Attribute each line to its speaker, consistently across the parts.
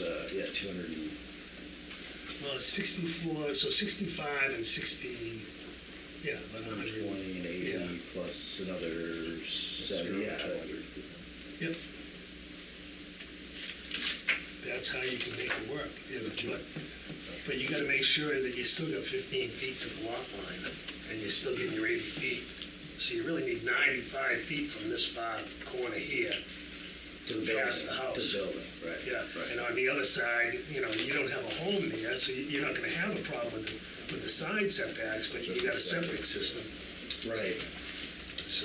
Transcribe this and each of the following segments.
Speaker 1: at uh, two hundred and,
Speaker 2: Well, it's sixty-four, so sixty-five and sixty, yeah, about
Speaker 1: hundred and
Speaker 2: hundred.
Speaker 1: twenty and
Speaker 2: Yeah.
Speaker 1: eighty plus another seventy, yeah.
Speaker 2: Yep. That's how you can make it work, yeah, but, but you gotta make sure that you still got fifteen feet to the lot line, and you're still getting your eighty feet. So you really need ninety-five feet from this far corner here,
Speaker 1: To the
Speaker 2: Past the
Speaker 1: building, to
Speaker 2: house.
Speaker 1: the building, right.
Speaker 2: yeah, and
Speaker 1: Right.
Speaker 2: on the other side, you know, you don't have a home there, so you- you're not gonna have a problem with, the- with the side setbacks, but you got a septic system,
Speaker 1: Right.
Speaker 2: so.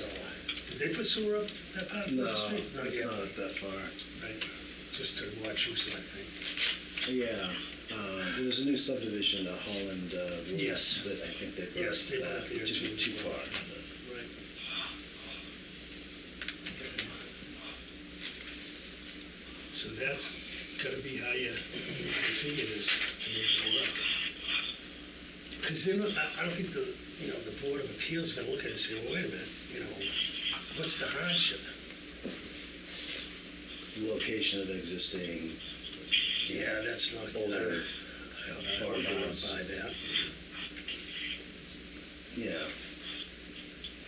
Speaker 2: Did they put sewer up that part of
Speaker 1: No,
Speaker 2: the street?
Speaker 1: it's
Speaker 2: yet.
Speaker 1: not up that far.
Speaker 2: Right, just to watch who's I think.
Speaker 1: Yeah, uh, well, there's a new subdivision, uh, Holland, uh, Woods
Speaker 2: Yes.
Speaker 1: that I think they've got
Speaker 2: Yes,
Speaker 1: to
Speaker 2: they put
Speaker 1: that,
Speaker 2: up there
Speaker 1: which isn't
Speaker 2: too.
Speaker 1: too far.
Speaker 2: Right. So that's gotta be how you configure this to make it work. Because then, I, I don't think the, you know, the Board of Appeals is gonna look at it and say, well, wait a minute, you know, what's the hardship?
Speaker 1: The Location of the existing
Speaker 2: Yeah, that's not.
Speaker 1: older,
Speaker 2: I don't- I don't know
Speaker 1: farmhouse.
Speaker 2: by that.
Speaker 1: yeah,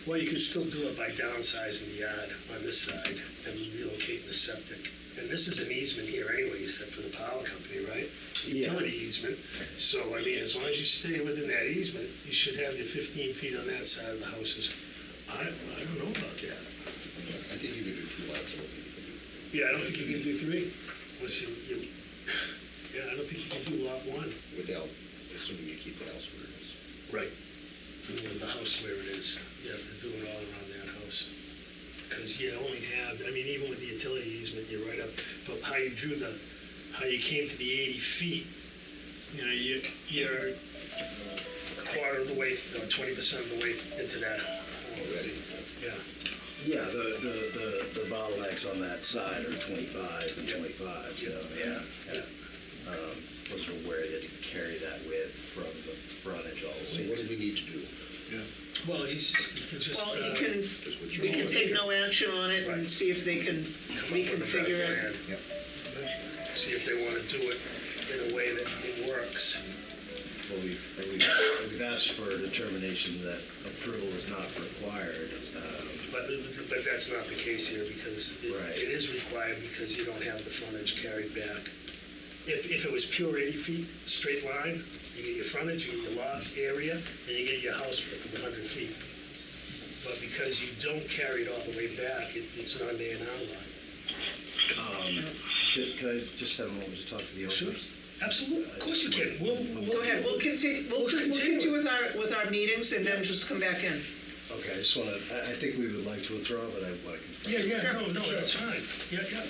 Speaker 2: Well, you can still do it by downsizing the yard on this side and relocating the septic. And this is an easement here anyway, except for the power company, right?
Speaker 1: Yeah.
Speaker 2: Utility easement. So, I mean, as long as you stay within that easement, you should have your 15 feet on that side of the houses. I, I don't know about that.
Speaker 3: I think you could do two lots, I don't think you could do.
Speaker 2: Yeah, I don't think you can do three. Unless you, you- yeah, I don't think you can do lot one.
Speaker 3: Without, assuming you keep the house where it is.
Speaker 2: Right. The house where it is, you have to do it all around that house. Because you only have, I mean, even with the utility easement, you're right up, but how you drew the, how you came to the 80 feet, you know, you- you're a quarter of the way, or 20% of the way into that.
Speaker 3: Already.
Speaker 2: Yeah,
Speaker 1: yeah, the, the, the, the bottlenecks on that side are twenty-five and
Speaker 2: Yeah.
Speaker 1: twenty-five, so, yeah. yeah. Um, Those are where they can carry that width from the frontage all
Speaker 3: So
Speaker 1: the way
Speaker 3: what do
Speaker 1: to.
Speaker 3: we need to do?
Speaker 2: well, he's just, he could just.
Speaker 4: Well, you
Speaker 2: uh,
Speaker 4: can,
Speaker 3: That's what you're
Speaker 4: we can
Speaker 3: all
Speaker 4: take
Speaker 3: about.
Speaker 4: no action on it and
Speaker 2: Right.
Speaker 4: see if they can
Speaker 2: come up with a
Speaker 4: reconfigure
Speaker 2: better
Speaker 4: it.
Speaker 3: Yep.
Speaker 2: plan, See if they want to do it in a way that it works.
Speaker 1: Well, we've, we've- we've asked for a determination that approval is not required. um,
Speaker 2: But, but that's not the case here, because it-
Speaker 1: Right.
Speaker 2: it is required, because you don't have the frontage carried back. If, if it was pure 80 feet, straight line, you get your frontage, you get your lot area, and you get your house with 100 feet. But because you don't carry it all the way back, it- it's not an A and R line.
Speaker 1: Could could I just have a moment to talk to the owners?
Speaker 2: Sure. Absolutely, of course you can, we'll, we'll.
Speaker 4: Go ahead, we'll continue, we'll
Speaker 2: We'll
Speaker 4: con- we'll
Speaker 2: continue
Speaker 4: continue
Speaker 2: it.
Speaker 4: with our, with our meetings and then just come back in.
Speaker 1: Okay, I just want to, I I think we would like to withdraw, but I want to confirm.
Speaker 2: Yeah, yeah,
Speaker 4: Sure,
Speaker 2: no, no,
Speaker 4: sure.
Speaker 2: that's fine, yeah, yeah.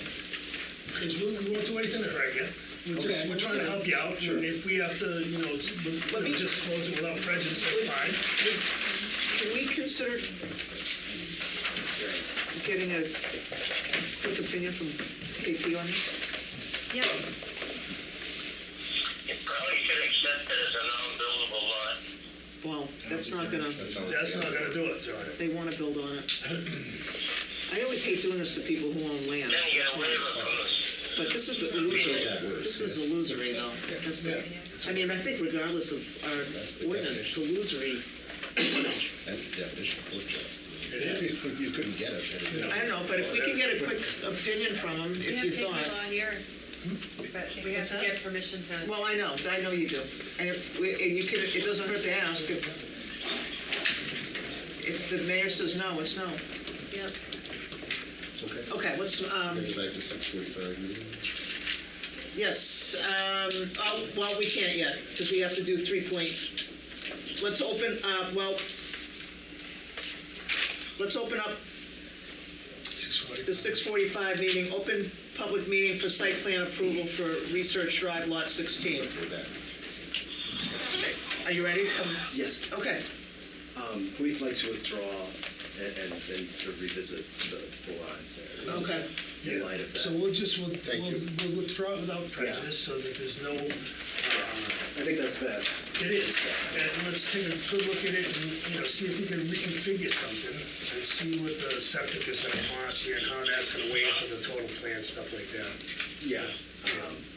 Speaker 2: Because we we won't do anything to hurt you. We're just,
Speaker 4: Okay.
Speaker 2: we're trying to help you out, and if we have to, you know, s- we-
Speaker 4: Let me-
Speaker 2: we'll just close it without prejudice, that's fine.
Speaker 1: Oh,
Speaker 4: Can we consider getting a quick opinion from KP on this?
Speaker 5: Yeah,
Speaker 6: You probably should accept it as a non-buildable lot.
Speaker 4: Well, that's not gonna,
Speaker 3: all.
Speaker 2: That's not gonna do it, John.
Speaker 4: they wanna build on it. I always hate doing this to people who own land,
Speaker 6: Then you get a waiver from the
Speaker 4: but this is illusory, this is illusory though. That's the- I mean, I think regardless of
Speaker 3: That's the
Speaker 4: our ordinance, it's illusory.
Speaker 3: That's the definition of foot job.
Speaker 2: It is.
Speaker 3: You couldn't- You couldn't get it. had it. been-
Speaker 4: I don't know, but if we can get a quick opinion from them,
Speaker 5: we
Speaker 4: if
Speaker 5: have
Speaker 4: you
Speaker 5: paper
Speaker 4: thought. Hmm?
Speaker 5: law here, but we have
Speaker 4: What's
Speaker 5: to
Speaker 4: that?
Speaker 5: get permission to.
Speaker 4: Well, I know, I know you do. And if, we- and you can, it doesn't hurt to ask if, if the mayor says no, it's no.
Speaker 5: Yep.
Speaker 3: Okay.
Speaker 4: Okay, let's, um,
Speaker 3: Bring it back to six forty-five meeting.
Speaker 4: yes, um, oh, well, we can't yet, because we have to do three point. Let's open, uh, well, let's open up
Speaker 2: Six forty.
Speaker 4: the six forty-five meeting, open public meeting for site plan approval for Research Drive Lot sixteen.
Speaker 3: With that.
Speaker 4: Are you ready? Come,
Speaker 1: Yes,
Speaker 4: okay.
Speaker 1: um, we'd like to withdraw and, and and to revisit the the lines there.
Speaker 4: Okay.
Speaker 1: In light of that.
Speaker 2: So we'll just, we'll,
Speaker 3: Thank
Speaker 2: we'll
Speaker 3: you.
Speaker 2: we'll withdraw it without prejudice, so that there's no, um,
Speaker 1: I think that's best.
Speaker 2: it is. And let's take a good look at it and, you know, see if we can reconfigure something and see what the septic is gonna cost here and how that's gonna weigh into the total plan, stuff like that.
Speaker 1: Yeah, um,